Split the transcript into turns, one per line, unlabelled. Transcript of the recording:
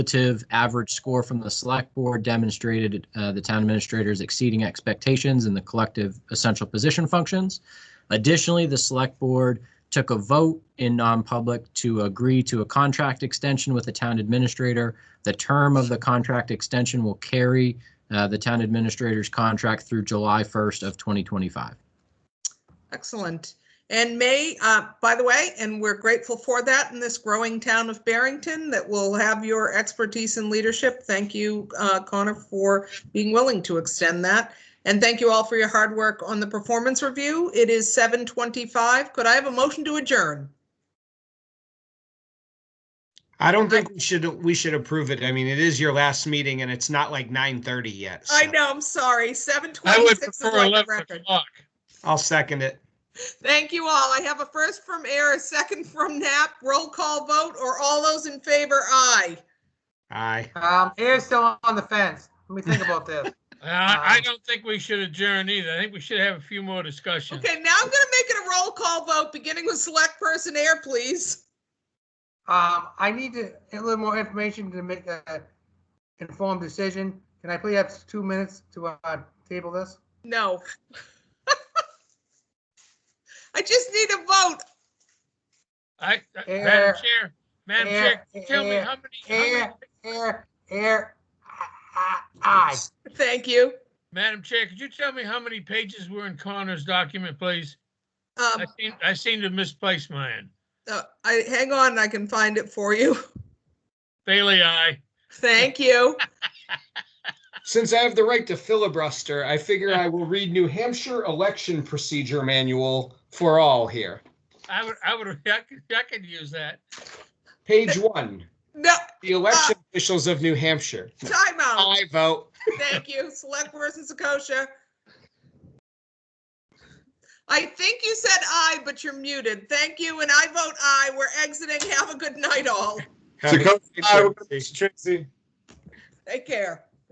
cumulative average score from the select board demonstrated uh, the town administrators exceeding expectations in the collective essential position functions. Additionally, the select board took a vote in non-public to agree to a contract extension with the town administrator. The term of the contract extension will carry uh, the town administrator's contract through July 1st of 2025.
Excellent. And May, uh, by the way, and we're grateful for that in this growing town of Barrington that will have your expertise and leadership. Thank you, uh, Connor, for being willing to extend that. And thank you all for your hard work on the performance review. It is 7:25. Could I have a motion to adjourn?
I don't think we should, we should approve it. I mean, it is your last meeting and it's not like nine thirty yet.
I
so
know, I'm sorry, 7:26.
I would
is
prefer
like the
11
record.
o'clock.
I'll second it.
Thank you all. I have a first from Air, a second from Knapp. Roll call vote, or all those in favor, aye.
Aye.
Um, Air's still on the fence. Let me think about this.
Uh, I
Um,
don't think we should adjourn either. I think we should have a few more discussions.
Okay, now I'm gonna make it a roll call vote, beginning with select person air, please.
Um, I need to, a little more information to make a informed decision. Can I please have two minutes to, uh, table this?
No. I just need a vote.
I, I-
Air.
Madam Chair, Madam Chair,
Air,
tell me
air,
how many, how many-
air. Air, air, ah, ah, aye.
Thank you.
Madam Chair, could you tell me how many pages were in Connor's document, please?
Um,
I seem, I seem to misplace mine.
uh, I, hang on, I can find it for you.
Bailey, aye.
Thank you.
Since I have the right to filibuster, I figure I will read New Hampshire Election Procedure Manual for all here.
I would, I would, I could, I could use that.
Page one,
No,
the election
Ah.
officials of New Hampshire.
timeout.
I vote.
Thank you. Select person Sakosha. I think you said aye, but you're muted. Thank you, and I vote aye. We're exiting. Have a good night, all.
Have a
Second.
good day,
Aye,
Tracy.
Take care.